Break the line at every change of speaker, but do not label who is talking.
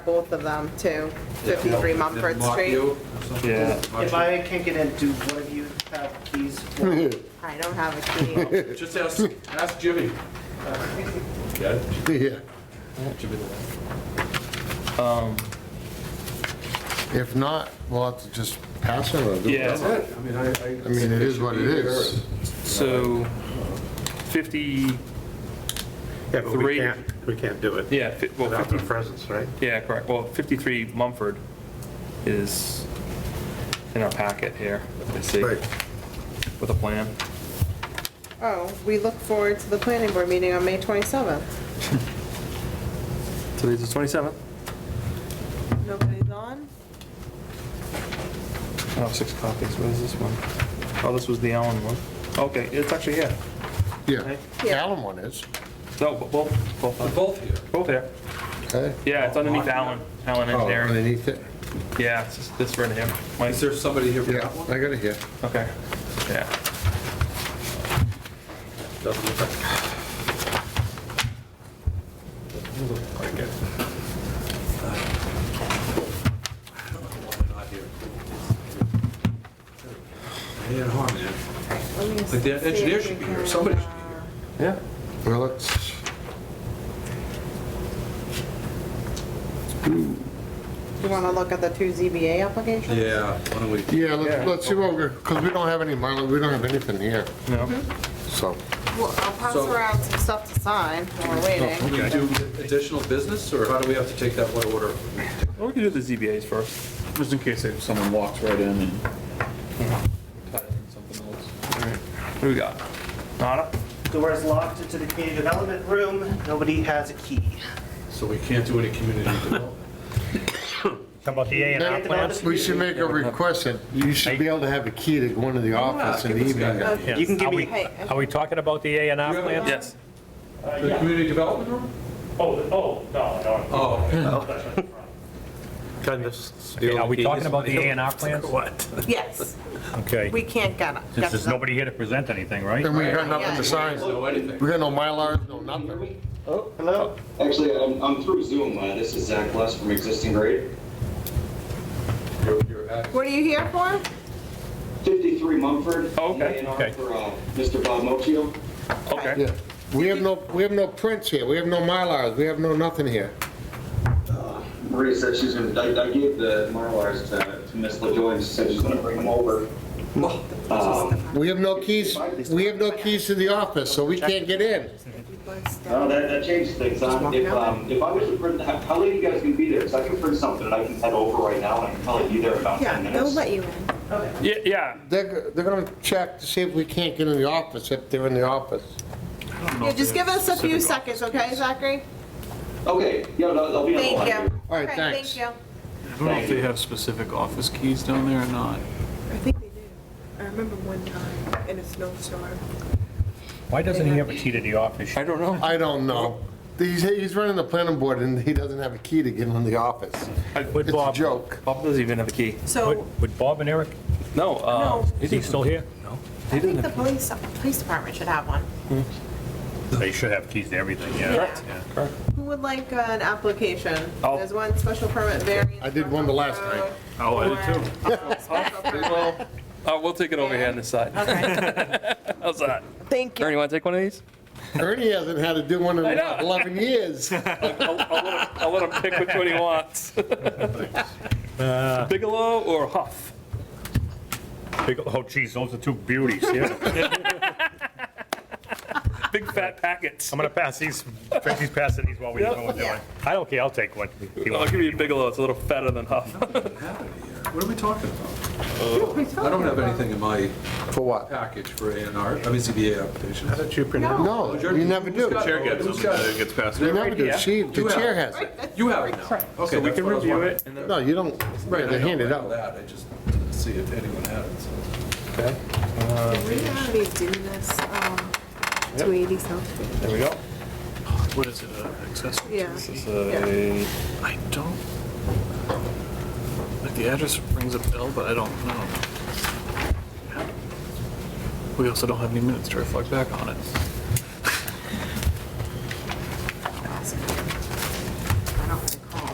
both of them to 53 Mumford
Mock
Street.
you or something?
Yeah.
Mock
If I can't get in, do one of you have these?
I don't have a key.
you. Just ask, ask Jimmy. Yeah,
Yeah.
Jimmy the last.
If not, we'll have to just pass it or do
Yeah.
it.
That's it. I mean, I, I.
I mean, it is what it is.
So 50,
Yeah, but we
Three.
can't, we can't do it
yeah, fi- well,
without their
50,
presence, right?
yeah, correct. Well, 53 Mumford is in our packet here, I see,
Right.
with a plan.
Oh, we look forward to the planning board meeting on May 27th.
Today's the 27th.
Nobody's on?
I have six copies. What is this one? Oh, this was the Allen one. Okay, it's actually here.
Yeah.
Yeah.
Allen one is,
No, but both,
They're
both,
both here.
both here.
okay?
Yeah, it's underneath Allen, Allen
Oh,
Engineering.
Underneath it,
Yeah, it's just this right here. Mike,
Is there somebody here for
yeah,
that one?
I got it here.
okay. Yeah.
Doesn't look like. Doesn't look like it. I don't know why they're not here. They ain't hard, man.
Let me
Like, the
see if
engineer
we
should be
can,
here, somebody should
uh,
be here.
Yeah.
Well, it's,
You want to look at the two ZBA applications?
Yeah, why don't we?
yeah, let's, let's see what we're, because we don't have any mileage, we don't have anything here,
No.
so.
Well, I'll pass
So-
around some stuff to sign while we're
Can
waiting.
we do additional business, or how do we have to take that one order?
Well, we can do the ZBAs first.
Just in case if someone walks right in and ties in something else.
What do we got? Nada?
Doors locked into the community development room, nobody has a key.
So we can't do any community development.
about the A and R plans?
uh, We should make a request that you should be able to have a key to go into the office in the
give this guy
evening.
that.
Okay.
Yes.
You can give
Are
me-
we-
Hey,
Are we talking about the A and R
Yeah.
plans?
Yes.
The community development room?
Oh, oh, no, no.
Oh, okay.
Kind of steal
Okay, Are we
the
talking
keys.
about the A and R plans?
Yes,
Okay.
we can't get it.
Since there's nobody here to present anything, right?
And we got nothing to sign.
so anything.
We got no Mylars, no nothing.
Hello?
Oh. Actually, I'm, I'm through Zoom. Uh, this is Zach Less from Existing Grade.
You're- you're at-
What are you here for?
53 Mumford.
Oh, okay,
A&R
okay.
For uh, Mr. Bob Mochio.
Okay.
Yeah. We have no, we have no prints here, we have no Mylars, we have no nothing here.
Maria said she's going to, I I gave the Marlars to to Ms. LaJoy and she said she's going to bring them over. Um,
We have no keys, we have no keys to the office, so we can't get in.
Oh, that, that changes things. huh?
walk
If,
down
um, if I was to print, how how late you guys can be there? Because I can print something and I can head over right now and I can probably be there in about 10 minutes.
you in.
Yeah, yeah.
They're, they're gonna check to see if we can't get in the office, if they're in the office.
Yeah, just give us a few seconds, okay, Zachary?
Okay, yeah, I'll I'll be on the line.
Thank you.
All right,
Okay,
thanks.
Thank
I don't know if they have specific office keys down there or not.
I think they do. I remember one time in a snowstorm.
Why doesn't he have a key to the office?
I don't know.
I don't know. He's, he's running the planning board and he doesn't have a key to get in the office.
Would
It's a
Bob,
joke.
Bob doesn't even have a key.
So
would- would Bob and Eric,
No, uh,
No.
he
is he
didn't-
still here?
he
I think
didn't
the
have
police, police department should have one.
They should have keys to everything, yeah.
Correct.
Yeah.
Who would like an application?
I'll-
There's one special permit variance.
Oh. I did one the last night.
Oh,
I did too.
Well, uh, we'll take it over here on this side. How's that?
Thank
Ernie, you want to take one of these?
Ernie hasn't had to do one in
I know.
11 years.
I'll, I'll let him, I'll let him pick which one he wants. Bigelow or Huff?
Big- Oh geez, those are two beauties, yeah.
Big fat packets.
I'm gonna pass these, Tracy's passing these while we know what we're doing. I don't care, I'll take one. He
I'll
wants-
give you Bigelow. It's a little fatter than Huff.
What are we talking about? I don't have anything in my
For what?
package for A and R, I mean ZBA applications.
How did you print it?
No, you never do.
Who's got-
You
Chair gets
who's
them,
got-
and it gets passed.
never do. She, the chair has it.
You have it now. Okay,
We
that's
can
what I was
review
wondering.
it and then.
No, you don't,
Right, I
they
know,
hand
I
it
know
out.
that, I just didn't see if anyone had it, so.
we already do this, um, 280 South.
There we go.
What is it, uh, accessory?
Yeah.
This is a- I don't, like, the address rings a bell, but I don't know. We also don't have any minutes to reflect back on it.